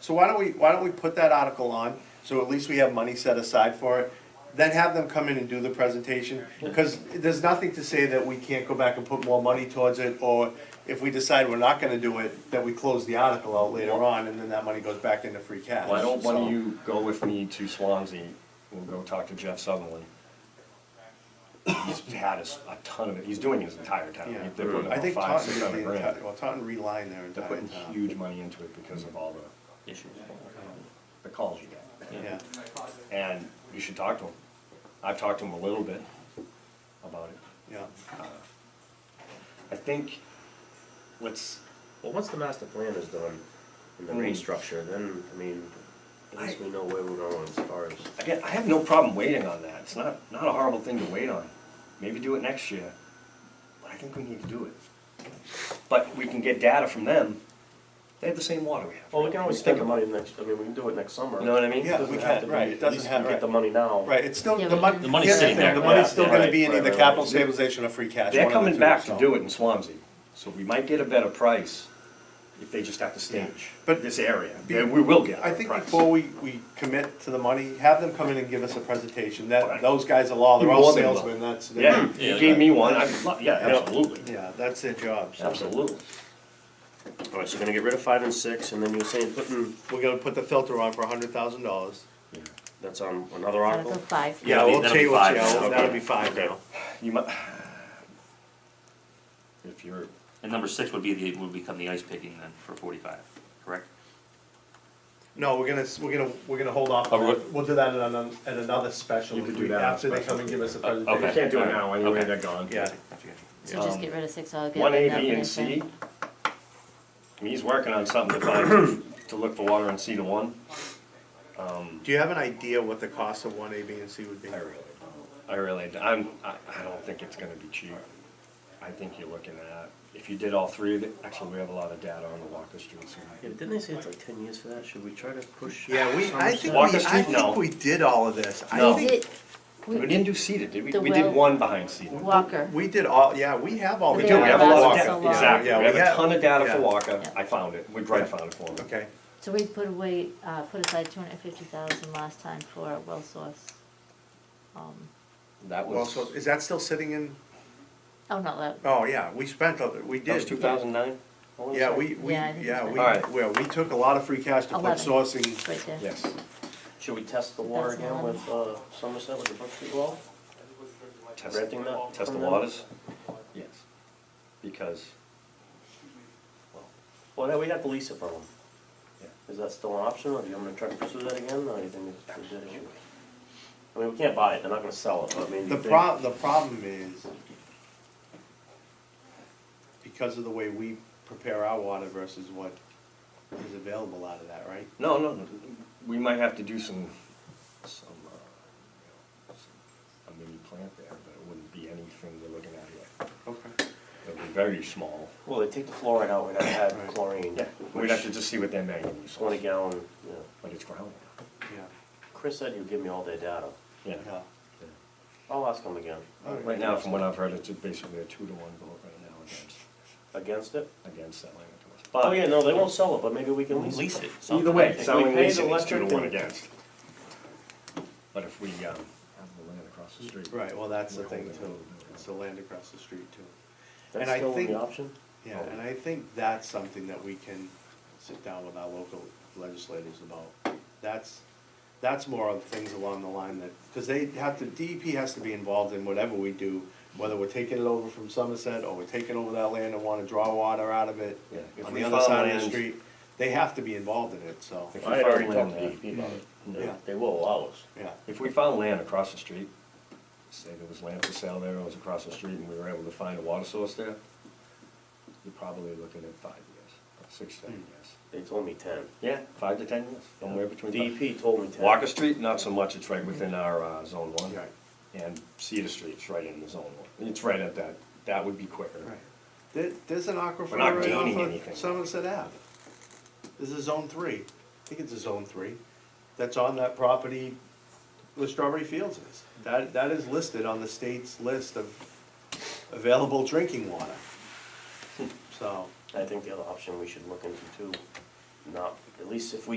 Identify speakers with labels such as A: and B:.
A: So why don't we, why don't we put that article on, so at least we have money set aside for it? Then have them come in and do the presentation, because there's nothing to say that we can't go back and put more money towards it, or if we decide we're not gonna do it, that we close the article out later on, and then that money goes back into free cash.
B: Why don't one
A: So-
B: of you go with me to Swansea, we'll go talk to Jeff Sutherland. He's had us a ton of it, he's doing his entire town,
A: Yeah.
B: they're putting
A: I
B: about
A: think
B: five,
A: Taunton
B: six
A: did
B: hundred
A: the
B: grand.
A: entire, well, Taunton relined their
B: They're
A: entire
B: putting
A: town,
B: huge money into it because of all the,
C: issues.
B: the calls you get,
A: yeah.
B: and you should talk to him. I've talked to him a little bit about it. Uh,
A: Yeah,
B: I think, let's,
C: Well, once the master plan is done and the
B: Mm.
C: rate structure, then, I mean, at least we know where we're going as far as.
B: Again, I have no problem waiting on that. It's not, not a horrible thing to wait on. Maybe do it next year, but I think we need to do it. But we can get data from them. They have the same water we have.
C: Well, we can always take the
B: about-
C: money next, I mean, we can do it next summer.
B: You know what I mean?
A: Yeah, we
C: Doesn't have
A: can,
C: to be-
A: right, it doesn't have,
C: Get
A: right,
C: the money now.
A: right, it's still,
D: Yeah,
A: the
D: we
A: money.
D: can-
E: The money's
A: here's
E: sitting
A: thing,
E: there,
A: The money's
C: yeah,
A: still
C: yeah,
A: gonna
C: right,
A: be in
C: right,
A: either
C: right,
A: capital
C: right.
A: stabilization or free cash.
B: They're
A: one of the
B: coming
A: two,
B: back to
A: so.
B: do it in Swansea, so we might get a better price if they just have to stage
A: But-
B: this area. Yeah, we will get a
A: I
B: better
A: think
B: price.
A: before we, we commit to the money, have them come in and give us a presentation, that,
B: Right.
A: those guys are law, they're all
B: More than law.
A: salesmen, that's. they're-
B: Yeah,
E: Yeah,
B: you gave
E: that-
B: me one, I'd love, yeah,
A: Yeah.
B: absolutely,
A: Yeah, that's their job, so.
B: absolutely.
C: All right, so you're gonna get rid of five and six, and then you're saying putting,
A: We're gonna put the filter on for a hundred thousand dollars.
C: that's on another
D: Article
C: article?
D: five.
A: Yeah,
E: That'll be-
A: we'll
E: that'll be
A: change, yeah,
E: five now,
A: well,
E: okay.
A: that'll be five now.
B: You might, if you're,
E: And number six would be the, would become the ice picking then for forty-five, correct?
A: No, we're gonna, we're gonna, we're gonna hold off,
E: Oh, we're-
A: we'll do that at another, at another special,
B: You could
A: if
B: do
A: we-
B: that on a
A: after they
B: special. Uh,
A: come and give us a
E: Oh, okay.
A: presentation.
B: you can't do it
E: Alright,
B: now, anyway,
E: okay.
B: they're gone.
A: Yeah.
D: So just get rid of six altogether.
B: One A,
D: and that
B: B,
D: would
B: and
D: have
B: C.
D: been-
B: I mean, he's working on something to find, to look for water in C to one.
A: Do you have an idea what the cost of one A, B, and C would be?
B: I really don't. I really, d- I'm, I, I don't think it's gonna be cheap. I think you're looking at, if you did all three of it, actually, we have a lot of data on the Walker Street
C: Yeah,
B: side.
C: didn't they say it's like ten years for that? Should we try to push?
A: Yeah, we, I think we,
B: Walker
A: I
B: Street? No.
A: think we did all of this. I
B: No.
D: We
A: think-
D: did-
B: We
D: we-
B: didn't do seeded, did we?
D: The
B: We did
D: well-
B: one behind seeded.
D: Walker.
A: We did all, yeah, we have all the
D: We
B: We do,
A: data.
B: we have a lot of
D: Yeah,
B: data,
D: yeah,
B: exactly.
A: yeah,
B: We have
A: we
B: a
A: have-
B: ton of data for
A: yeah.
B: Walker.
D: Yeah.
B: I found it. We Brett found it for me.
A: Okay,
D: So we put away, uh, put aside two hundred and fifty thousand last time for a well source. Um,
B: That
A: well,
B: was,
A: so is that still sitting in,
D: oh, not that,
A: oh, yeah, we spent, all- we
B: that was two
A: did.
B: thousand nine?
A: Yeah, we, we,
D: Yeah, I think
A: yeah,
D: it's
A: we,
B: been- Alright.
A: well, we took a lot of free cash to put
D: Eleven.
A: sourcing.
D: right there.
B: Yes.
C: Should we test the water
D: That's
C: again
D: on.
C: with, uh, Somerset with the Brook Street well?
B: Test-
C: Renting that
B: Test the
C: from them?
B: waters? Yes. Because,
C: Well, then we'd have to lease it from them.
B: Yeah.
C: Is that still an option, or do you want me to try to pursue that again, or do you think it's too good? I mean, we can't buy it, they're not gonna sell it, but I mean, do
A: The
C: you think-
A: prob, the problem is, because of the way we prepare our water versus what is available out of that, right?
B: no, no, no, we might have to do some, some, uh, some- a mini plant there, but it wouldn't be anything we're looking at here.
A: Okay.
B: It would be very small.
C: Well, they take the fluoride out, we'd have to
A: Right.
C: add chlorine.
B: Yeah, we'd have to just see what their manganese
C: Twenty
B: is,
C: gallon, yeah.
B: but it's groundwater.
A: Yeah,
C: Chris said he'd give me all their data.
B: Yeah.
A: yeah.
C: I'll ask him again.
A: Alright.
B: Right now, from what I've heard, it's basically a two to one vote right now against,
C: Against it?
B: against selling it to us.
C: Oh,
B: But
C: yeah, no, they won't sell it, but maybe we can lease
E: Lease
C: it.
E: it.
B: Either
E: sometime.
B: way,
C: If we
B: selling
C: pay the
B: leasing is two to
C: electric,
B: one
C: then-
B: against. But if we, um, have the land across the street.
A: Right, well, that's the
B: We're
A: thing
B: holding
A: too,
B: it.
A: it's the land across the street too. And
C: That's
A: I
C: still
A: think-
C: the option?
A: Yeah, and I think that's something that we can sit down with our local legislators about. That's, that's more of things along the line that, because they have to, DEP has to be involved in whatever we do, whether we're taking it over from Somerset, or we're taking over that land and wanna draw water out of it,
B: Yeah, if
A: on
B: we
A: the other
B: farm
A: side of the
B: land-
A: street, they have to be involved in it, so,
B: If we
C: I had already
B: found
C: talked to
B: land,
C: DEP about it. They-
A: Yeah.
C: Mm-hmm. They will allow us.
A: yeah.
B: If we found land across the street, say there was land for sale there, it was across the street, and we were able to find a water source there, you're probably looking at five years, six, seven years.
C: They told me ten.
B: Yeah, five to ten years, somewhere between. five-
C: DEP told me ten.
B: Walker Street, not so much, it's right within our, uh, zone one.
A: Right.
B: And Cedar Street's right in the zone one, it's right at that, that would be quicker.
A: There, there's an aquifer
B: We're not
A: right
B: gaining
A: off
B: anything.
A: of Somerset Ave. This is zone three, I think it's a zone three, that's on that property where Strawberry Fields is. That, that is listed on the state's list of available drinking water. So.
B: Hmm.
C: I think the other option we should look into too, not, at least if we